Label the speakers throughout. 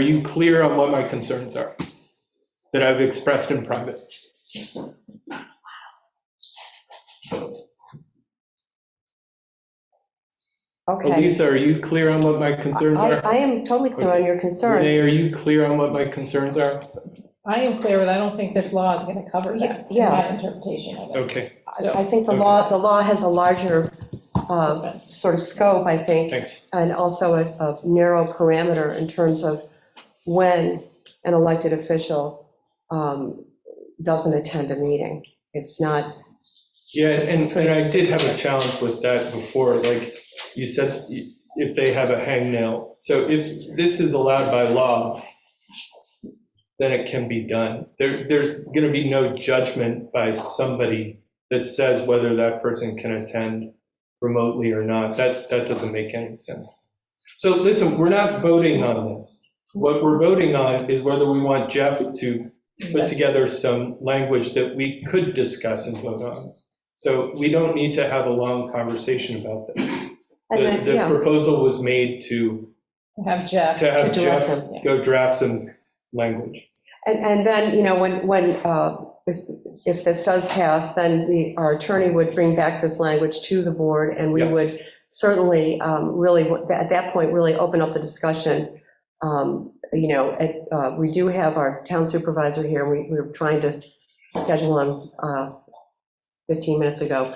Speaker 1: you clear on what my concerns are that I've expressed in private?
Speaker 2: Okay.
Speaker 1: Elisa, are you clear on what my concerns
Speaker 2: I,
Speaker 1: are?
Speaker 2: I am totally clear on your
Speaker 1: Renee,
Speaker 2: concerns.
Speaker 1: are you clear on what my concerns are?
Speaker 3: I am clear, but I don't think this law is going to cover that, in
Speaker 2: Yeah.
Speaker 3: my interpretation of it.
Speaker 1: Okay,
Speaker 2: I I think the law, the law has a larger
Speaker 3: Um,
Speaker 2: uh, sort of scope, I think,
Speaker 1: thanks.
Speaker 2: and also a a narrow parameter in terms of when an elected official um, doesn't attend a meeting. It's not,
Speaker 1: Yeah, and, and I did have a challenge with that before, like you said, if they have a hangnail. So if this is allowed by law, then it can be done. There, there's going to be no judgment by somebody that says whether that person can attend remotely or not. That, that doesn't make any sense. So listen, we're not voting on this. What we're voting on is whether we want Jeff to put together some language that we could discuss and vote on. So we don't need to have a long conversation about this.
Speaker 2: and
Speaker 1: The
Speaker 2: then,
Speaker 1: the
Speaker 2: yeah,
Speaker 1: proposal was made to,
Speaker 3: To have Jeff,
Speaker 1: to
Speaker 2: to
Speaker 1: have Jeff
Speaker 2: direct them.
Speaker 1: go draft some language.
Speaker 2: And, and then, you know, when, when, uh, if if this does pass, then the, our attorney would bring back this language to the board, and we
Speaker 1: Yeah.
Speaker 2: would certainly um, really, at that point, really open up the discussion. Um, You know, at, uh, we do have our town supervisor here, we, we were trying to schedule him uh, 15 minutes ago.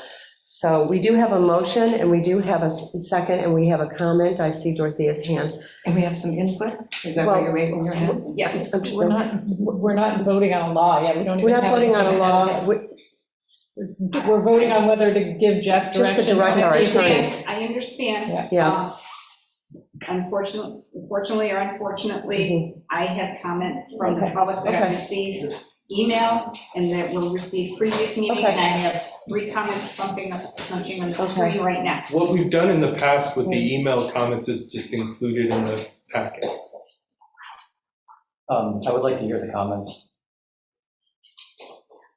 Speaker 2: So we do have a motion, and we do have a s- second, and we have a comment, I see Dorothea's hand.
Speaker 4: And we have some input? Is that why you're raising your hand?
Speaker 2: Yes.
Speaker 3: we're not, we're not voting on a law yet, we don't
Speaker 2: We're
Speaker 3: even have.
Speaker 2: not voting on a
Speaker 3: anything ahead
Speaker 2: law,
Speaker 3: of
Speaker 2: We-
Speaker 3: us. We're voting on whether to give Jeff
Speaker 2: Just to
Speaker 3: direction.
Speaker 2: direct our
Speaker 3: on the
Speaker 2: attorney.
Speaker 3: safety.
Speaker 5: I I understand.
Speaker 2: yeah.
Speaker 5: Uh, Unfortunately, unfortunately or unfortunately, I had comments from the
Speaker 3: Okay.
Speaker 5: public that
Speaker 2: Okay.
Speaker 5: I received email and that were received previous meeting,
Speaker 2: Okay.
Speaker 5: and I have three comments bumping up something on the
Speaker 2: Okay.
Speaker 5: screen right now.
Speaker 1: What we've done in the past with the email comments is just included in the packet.
Speaker 6: Um, I would like to hear the comments.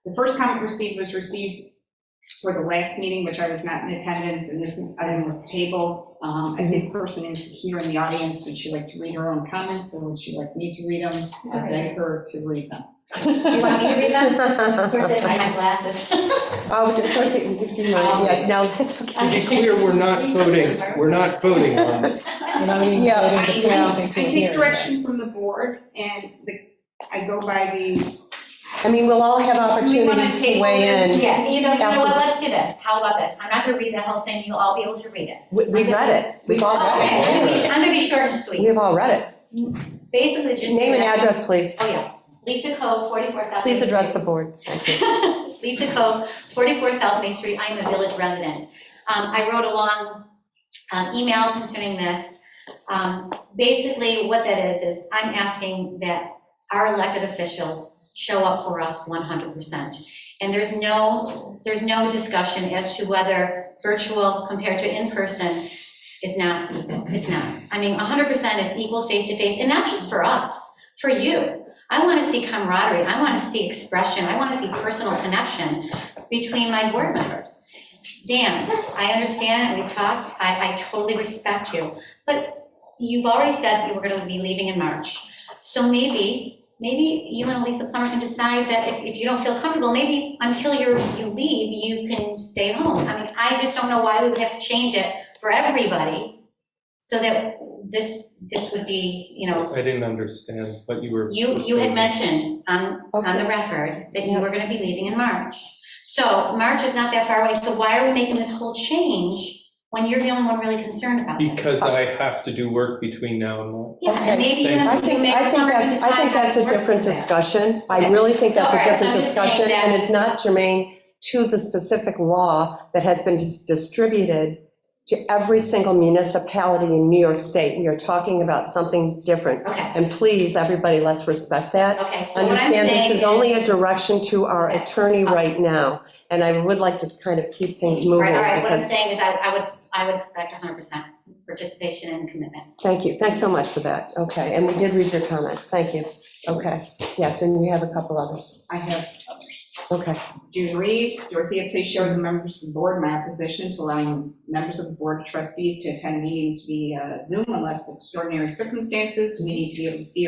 Speaker 5: The first comment received was received for the last meeting, which I was not in attendance, and this item was tabled. Um, I
Speaker 2: Mm-hmm.
Speaker 5: see a person in here in the audience, would she like to read her own comments, or would she like me to read them? I beg her to read them.
Speaker 7: You want me to read them? Of course, I
Speaker 2: Oh,
Speaker 7: have my glasses.
Speaker 2: of course, it would be
Speaker 7: Oh,
Speaker 2: mine. yeah, no, that's
Speaker 1: To
Speaker 2: okay.
Speaker 1: be clear, we're not voting, we're not voting on this.
Speaker 3: We're not even
Speaker 2: Yeah,
Speaker 3: voting to put
Speaker 5: I
Speaker 3: anything
Speaker 5: I
Speaker 3: to
Speaker 5: take
Speaker 3: here.
Speaker 5: direction from the board, and the- I go by the,
Speaker 2: I mean, we'll all have
Speaker 5: We wanna
Speaker 2: opportunities to
Speaker 5: table
Speaker 2: weigh in.
Speaker 7: Yeah, you know, you know what, let's do this, how about this, I'm not gonna read the whole thing, you'll all be able to read it.
Speaker 2: We- We read it, we've all
Speaker 7: Okay, I'm
Speaker 2: read
Speaker 7: gonna be, I'm gonna be short and
Speaker 2: it.
Speaker 7: sweet,
Speaker 2: We've all read
Speaker 7: basically
Speaker 2: it.
Speaker 7: just.
Speaker 2: Name and address, please.
Speaker 7: Oh, yes, Lisa Cove, 44 South.
Speaker 2: Please
Speaker 7: Main
Speaker 2: address the
Speaker 7: Street.
Speaker 2: board.
Speaker 7: Lisa Cove, 44 South Main Street, I am a village resident. Um, I wrote a long um, email concerning this. Um, Basically, what that is, is I'm asking that our elected officials show up for us 100%. And there's no, there's no discussion as to whether virtual compared to in-person is not, it's not. I mean, 100% is equal face-to-face, and not just for us, for you. I want to see camaraderie, I want to see expression, I want to see personal connection between my board members. Dan, I understand, and we talked, I, I totally respect you, but you've already said you were going to be leaving in March. So maybe, maybe you and Elisa Plummer can decide that if, if you don't feel comfortable, maybe until you're, you leave, you can stay at home. I mean, I just don't know why we would have to change it for everybody, so that this, this would be, you know,
Speaker 1: I didn't understand what you were.
Speaker 7: you, you had mentioned on, on
Speaker 2: Okay.
Speaker 7: the record that you were gonna be leaving in March. So March is not that far away, so why are we making this whole change when you're the only one really concerned about this?
Speaker 1: Because I have to do work between now and then.
Speaker 7: Yeah, and maybe you
Speaker 2: I
Speaker 7: have to
Speaker 2: think,
Speaker 7: make
Speaker 2: I
Speaker 7: a
Speaker 2: think that's,
Speaker 7: comprehensive
Speaker 2: I think
Speaker 7: plan
Speaker 2: that's a
Speaker 7: how to work
Speaker 2: different
Speaker 7: with that.
Speaker 2: discussion. I
Speaker 7: Okay.
Speaker 2: really think that's
Speaker 7: So,
Speaker 2: a
Speaker 7: all right,
Speaker 2: different
Speaker 7: I'm just saying
Speaker 2: discussion, and
Speaker 7: that-
Speaker 2: it's not germane to the specific law that has been dis- distributed to every single municipality in New York State. We are talking about something different.
Speaker 7: Okay,
Speaker 2: And please, everybody, let's respect that.
Speaker 7: okay, so what I'm saying
Speaker 2: Understand, this is only a
Speaker 7: is-
Speaker 2: direction to our
Speaker 7: Okay.
Speaker 2: attorney right now, and I would like to kind of keep things
Speaker 7: All
Speaker 2: moving
Speaker 7: right, all right, what I'm
Speaker 2: because,
Speaker 7: saying is I, I would, I would expect 100% participation and commitment.
Speaker 2: thank you, thanks so much for that. Okay, and we did read your comment, thank you. Okay, yes, and we have a couple others.
Speaker 5: I have others.
Speaker 2: Okay,
Speaker 5: June Reeves, Dorothea, please show the members of the board my opposition to allowing members of the board of trustees to attend meetings via Zoom unless extraordinary circumstances. We need to be able to see